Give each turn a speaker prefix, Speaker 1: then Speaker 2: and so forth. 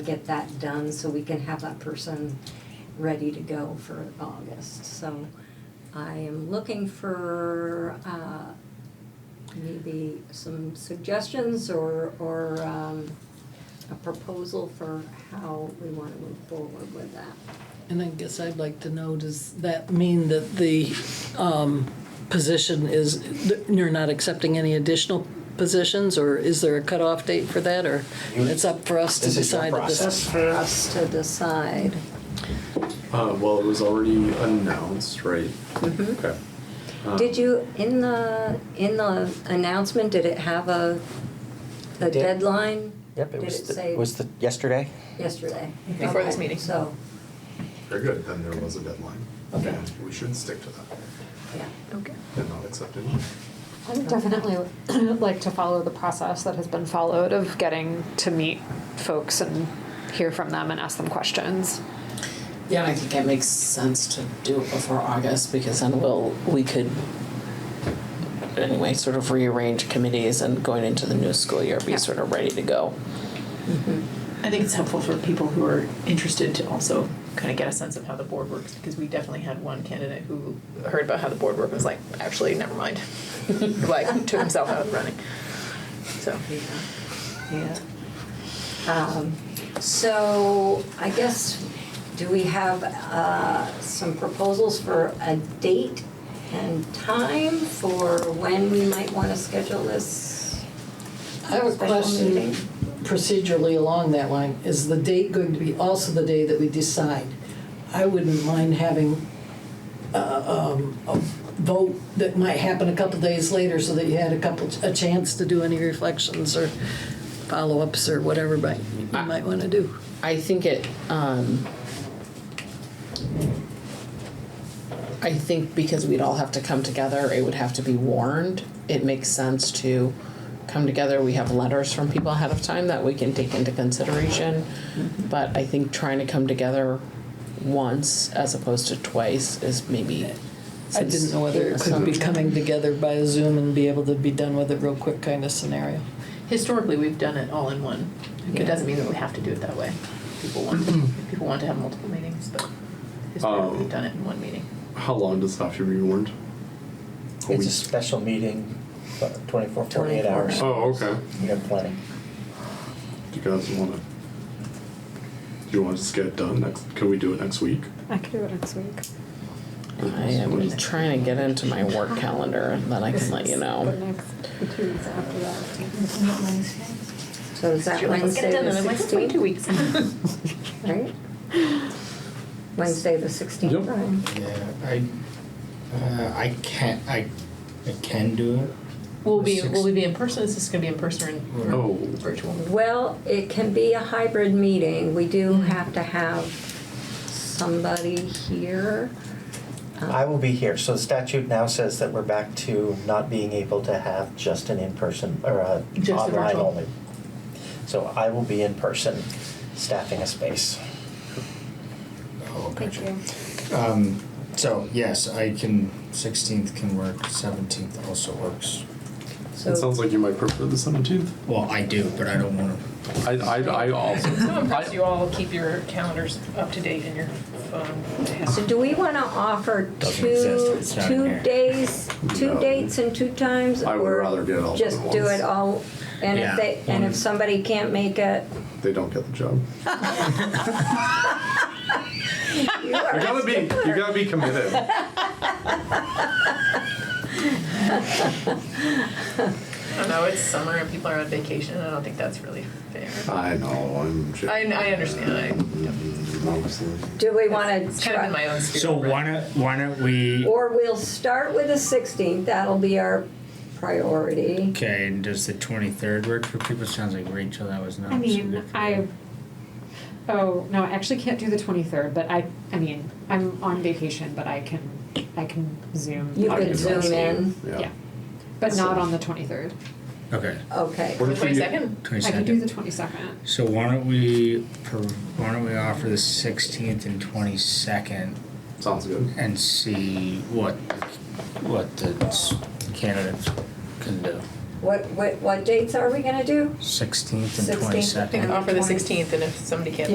Speaker 1: get that done so we can have that person ready to go for August. So I am looking for uh, maybe some suggestions or, or um, a proposal for how we want to move forward with that.
Speaker 2: And I guess I'd like to know, does that mean that the um, position is, that you're not accepting any additional positions? Or is there a cutoff date for that, or it's up for us to
Speaker 3: This is your
Speaker 2: decide? at this-
Speaker 3: process.
Speaker 1: That's for us to decide.
Speaker 4: Uh, well, it was already announced, right?
Speaker 3: Mm-hmm.
Speaker 4: Okay.
Speaker 1: Did you, in the, in the announcement, did it have a, a
Speaker 3: It did.
Speaker 1: deadline?
Speaker 3: Yep, it
Speaker 1: Did
Speaker 3: was,
Speaker 1: it
Speaker 3: the-
Speaker 1: say-
Speaker 3: was the, yesterday?
Speaker 1: Yesterday.
Speaker 5: Before this
Speaker 1: Okay,
Speaker 5: meeting.
Speaker 1: So,
Speaker 4: Very good, then there was a deadline.
Speaker 3: Okay.
Speaker 4: And We should stick to that
Speaker 1: yeah.
Speaker 5: Okay.
Speaker 4: and not accept it.
Speaker 5: I would definitely like to follow the process that has been followed of getting to meet folks and hear from them and ask them questions.
Speaker 6: Yeah, I think it makes sense to do it before August because then we'll, we could anyway, sort of rearrange committees and going into the new school year, be
Speaker 5: Yeah.
Speaker 6: sort of ready to go.
Speaker 7: I think it's helpful for people who are interested to also kind of get a sense of how the board works because we definitely had one candidate who heard about how the board worked and was like, actually, never mind. like, took himself out of the running. So,
Speaker 1: Yeah. Um, So I guess, do we have uh, some proposals for a date and time for when we might want to schedule this?
Speaker 2: I have a
Speaker 1: Special meeting.
Speaker 2: question procedurally along that line. Is the date going to be also the day that we decide? I wouldn't mind having uh, um, a vote that might happen a couple days later so that you had a couple, a chance to do any reflections or follow-ups or whatever might, you might want to do.
Speaker 6: I think it, um, I think because we'd all have to come together, it would have to be warned. It makes sense to come together. We have letters from people ahead of time that we can take into consideration.
Speaker 2: Mm-hmm.
Speaker 6: But I think trying to come together once as opposed to twice is maybe.
Speaker 2: I didn't know whether it could be coming together by Zoom and be able to be done with it real quick kind of scenario.
Speaker 7: historically, we've done it all in one. It doesn't mean that we have to do it that way. People want to, people want to have multiple meetings, but historically, we've done it in one meeting.
Speaker 4: How long does it have to be warned? A
Speaker 3: It's
Speaker 4: week?
Speaker 3: a special meeting, but 24, 48 hours.
Speaker 4: Oh, okay.
Speaker 3: We have plenty.
Speaker 4: Do you guys want to? Do you want to just get it done next? Can we do it next week?
Speaker 5: I could do it next week.
Speaker 6: I am trying to get into my work calendar and then I can let you know.
Speaker 5: two weeks after that.
Speaker 1: So is that Wednesday the 16th?
Speaker 7: weeks.
Speaker 1: Right? Wednesday the 16th,
Speaker 4: Yep.
Speaker 1: Brian?
Speaker 8: Yeah, I, uh, I can't, I, I can do it.
Speaker 7: Will we, will we be in person? Is this going to be in person or
Speaker 4: Oh,
Speaker 7: virtual?
Speaker 1: Well, it can be a hybrid meeting. We do have to have somebody here. Oh. Um,
Speaker 3: I will be here. So the statute now says that we're back to not being able to have just an in-person or a
Speaker 7: Just the
Speaker 3: online
Speaker 7: virtual.
Speaker 3: only. So I will be in person staffing a space.
Speaker 8: Oh, gotcha. Um, so, yes, I can, 16th can work, 17th also works.
Speaker 4: it sounds like you might prefer the seventeenth.
Speaker 8: Well, I do, but I don't want to.
Speaker 4: I, I, I also.
Speaker 5: So
Speaker 4: impressed
Speaker 5: you all keep your calendars up to date in your phone.
Speaker 1: So do we want to offer
Speaker 8: Doesn't exist,
Speaker 1: two,
Speaker 8: it's not in
Speaker 1: two
Speaker 8: here.
Speaker 1: days, two
Speaker 4: No.
Speaker 1: dates and two times?
Speaker 4: I would
Speaker 1: or
Speaker 4: rather do it all
Speaker 1: Just
Speaker 4: at
Speaker 1: do
Speaker 4: once.
Speaker 1: it all, and if
Speaker 8: Yeah,
Speaker 1: they, and if
Speaker 8: one-
Speaker 1: somebody can't make it,
Speaker 4: They don't get the job.
Speaker 1: you are-
Speaker 4: You gotta be. You gotta be committed.
Speaker 7: I don't know. It's summer and people are on vacation, and I don't think that's really fair.
Speaker 4: I know. I'm. joking.
Speaker 7: I, I understand. I,
Speaker 4: Honestly.
Speaker 1: do we want
Speaker 7: it's
Speaker 1: to
Speaker 7: kind of in my
Speaker 1: try?
Speaker 7: own spirit.
Speaker 8: So why don't, why don't we,
Speaker 1: Or we'll start with the 16th, that'll be our priority.
Speaker 8: okay, and does the 23rd work for people? Sounds like Rachel, that was not.
Speaker 5: I
Speaker 8: so
Speaker 5: mean,
Speaker 8: good for
Speaker 5: I,
Speaker 8: you.
Speaker 5: oh, no, I actually can't do the twenty-third, but I, I mean, I'm on vacation, but I can, I can Zoom.
Speaker 1: You
Speaker 5: out
Speaker 1: could
Speaker 5: of
Speaker 1: zoom
Speaker 5: Zoom.
Speaker 1: in,
Speaker 4: Yeah.
Speaker 5: Yeah, but not on the twenty-third.
Speaker 8: Okay,
Speaker 1: okay.
Speaker 4: What
Speaker 7: The
Speaker 4: if we-
Speaker 7: 22nd?
Speaker 8: 22nd.
Speaker 5: I could do the twenty-second.
Speaker 8: So why don't we, pro- why don't we offer the 16th and 22nd
Speaker 4: Sounds good.
Speaker 8: and see what, what the s- candidates can do.
Speaker 1: What, what, what dates are we gonna do?
Speaker 8: Sixteenth and
Speaker 1: 16th.
Speaker 8: twenty-second.
Speaker 1: And the
Speaker 7: Offer the
Speaker 1: 20th.
Speaker 7: sixteenth, and if somebody can't